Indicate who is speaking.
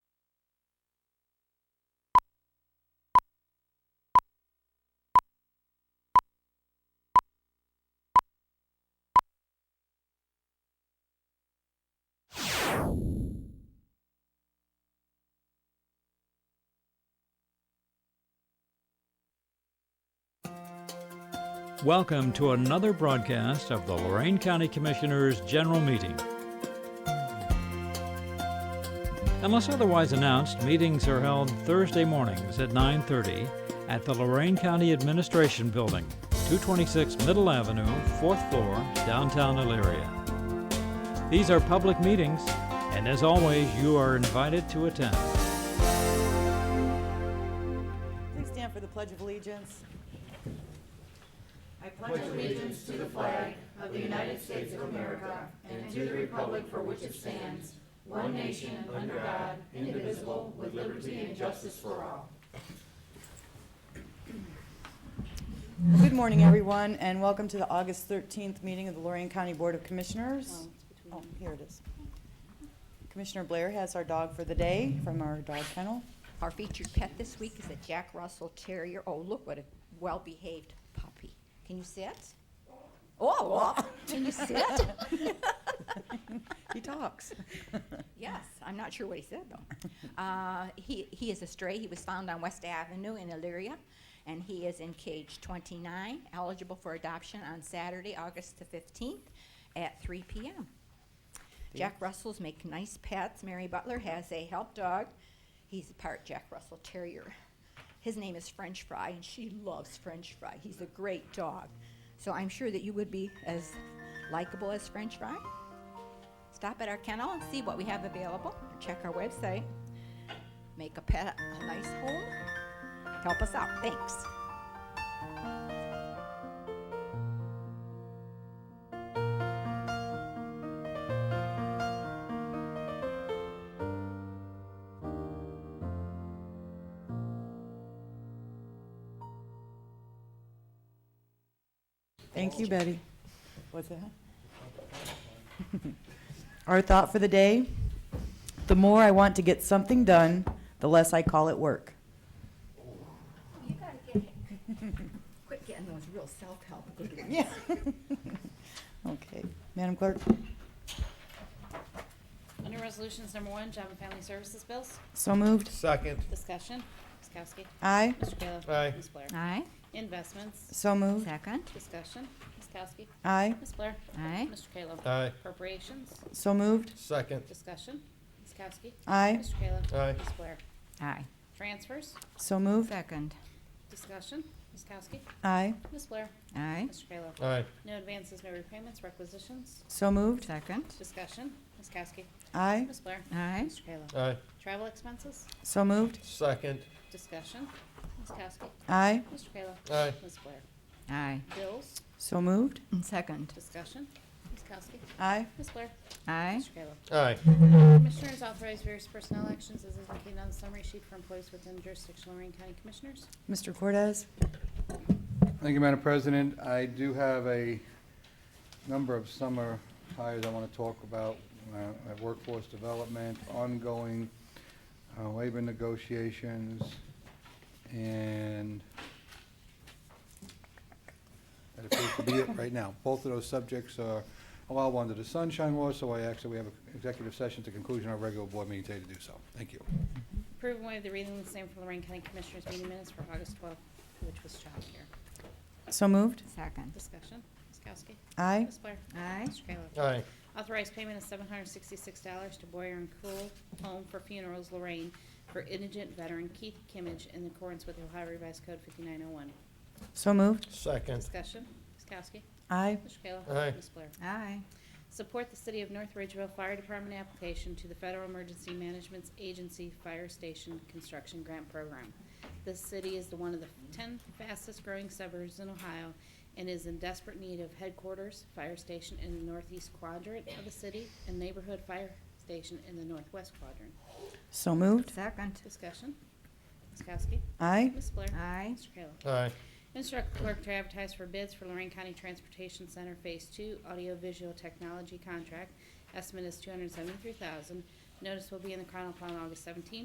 Speaker 1: Welcome to another broadcast of the Lorraine County Commissioners' General Meeting. Unless otherwise announced, meetings are held Thursday mornings at 9:30 at the Lorraine County Administration Building, 226 Middle Avenue, 4th floor, downtown Elyria. These are public meetings, and as always, you are invited to attend.
Speaker 2: Please stand for the Pledge of Allegiance. I pledge allegiance to the flag of the United States of America and to the republic for which it stands, one nation, under God, indivisible, with liberty and justice for all. Good morning, everyone, and welcome to the August 13th meeting of the Lorraine County Board of Commissioners. Oh, here it is. Commissioner Blair has our dog for the day from our dog kennel.
Speaker 3: Our featured pet this week is a Jack Russell Terrier. Oh, look what a well-behaved puppy. Can you sit? Oh, oh, can you sit?
Speaker 2: He talks.
Speaker 3: Yes, I'm not sure what he said though. Uh, he, he is a stray. He was found on West Avenue in Elyria, and he is in cage 29, eligible for adoption on Saturday, August the 15th at 3 p.m. Jack Russells make nice pets. Mary Butler has a help dog. He's a part Jack Russell Terrier. His name is French Fry, and she loves French Fry. He's a great dog. So I'm sure that you would be as likable as French Fry. Stop at our kennel and see what we have available. Check our website. Make a pet a nice home. Help us out. Thanks.
Speaker 2: Thank you, Betty. What's that? Our thought for the day, the more I want to get something done, the less I call it work.
Speaker 3: You gotta get quit getting those real self-help good ones.
Speaker 2: Yeah. Okay, Madam Clerk,
Speaker 4: Under Resolutions Number One, Job and Family Services Bills,
Speaker 2: so moved.
Speaker 5: Second,
Speaker 4: discussion, Ms. Kowski.
Speaker 2: Aye,
Speaker 4: Mr. Kayla.
Speaker 5: Aye.
Speaker 4: Ms. Blair.
Speaker 3: Aye.
Speaker 4: Investments,
Speaker 2: so moved.
Speaker 3: Second.
Speaker 4: discussion, Ms. Kowski.
Speaker 2: Aye,
Speaker 4: Ms. Blair.
Speaker 3: Aye.
Speaker 4: Mr. Kayla.
Speaker 5: Aye.
Speaker 4: Appropriations,
Speaker 2: so moved.
Speaker 5: second,
Speaker 4: discussion, Ms. Kowski.
Speaker 2: Aye,
Speaker 4: Mr. Kayla.
Speaker 5: Aye.
Speaker 4: Ms. Blair.
Speaker 3: Aye.
Speaker 4: Transfers,
Speaker 2: so moved.
Speaker 3: Second.
Speaker 4: discussion, Ms. Kowski.
Speaker 2: Aye,
Speaker 4: Ms. Blair.
Speaker 3: Aye.
Speaker 4: Mr. Kayla.
Speaker 5: aye,
Speaker 4: No advances, no repayments, requisitions,
Speaker 2: so moved.
Speaker 3: Second.
Speaker 4: discussion, Ms. Kowski.
Speaker 2: Aye,
Speaker 4: Ms. Blair.
Speaker 3: Aye.
Speaker 4: Mr. Kayla.
Speaker 5: aye,
Speaker 4: Travel expenses,
Speaker 2: so moved.
Speaker 5: second,
Speaker 4: discussion, Ms. Kowski.
Speaker 2: Aye,
Speaker 4: Mr. Kayla.
Speaker 5: Aye.
Speaker 4: Ms. Blair.
Speaker 3: Aye.
Speaker 4: Bills,
Speaker 2: so moved.
Speaker 3: Second.
Speaker 4: Discussion, Ms. Kowski,
Speaker 2: Aye,
Speaker 4: Ms. Blair,
Speaker 3: Aye.
Speaker 4: Mr. Kayla.
Speaker 5: aye,
Speaker 4: Commissioners authorize various personnel actions as indicated on the summary sheet for employees within jurisdiction of Lorraine County Commissioners.
Speaker 2: Mr. Cortez,
Speaker 6: Thank you, Madam President. I do have a number of summer hires I want to talk about uh, at workforce development, ongoing uh, labor negotiations, and that appears to be it right now. Both of those subjects are allowed under the sunshine law, so I actually, we have an executive session to conclusion of our regular board meeting today to do so. Thank you.
Speaker 4: Approve and waive the reading of the same for Lorraine County Commissioners meeting minutes for August 12th, which was childcare.
Speaker 2: so moved.
Speaker 3: Second.
Speaker 4: Discussion, Ms. Kowski,
Speaker 2: Aye,
Speaker 4: Ms. Blair,
Speaker 3: Aye.
Speaker 4: Mr. Kayla.
Speaker 5: aye,
Speaker 4: Authorize payment of $766 to Boyer and Cool Home for Funerals Lorraine for indigent veteran Keith Kimmage in accordance with Ohio Revised Code 5901.
Speaker 2: so moved.
Speaker 5: second,
Speaker 4: Discussion, Ms. Kowski,
Speaker 2: Aye,
Speaker 4: Mr. Kayla.
Speaker 5: Aye.
Speaker 4: Ms. Blair.
Speaker 3: Aye.
Speaker 4: Support the City of North Ridgeville Fire Department application to the Federal Emergency Management Agency Fire Station Construction Grant Program. This city is the one of the ten fastest-growing suburbs in Ohio and is in desperate need of headquarters, fire station in the northeast quadrant of the city, and neighborhood fire station in the northwest quadrant.
Speaker 2: so moved.
Speaker 3: Second.
Speaker 4: Discussion. Ms. Kowski.
Speaker 2: Aye,
Speaker 4: Ms. Blair.
Speaker 3: Aye.
Speaker 4: Mr. Kayla.
Speaker 5: aye,
Speaker 4: Instruct clerk to advertise for bids for Lorraine County Transportation Center Phase Two Audiovisual Technology Contract. Estimate is two hundred seventy-three thousand. Notice will be in the Chronicle on August seventeenth.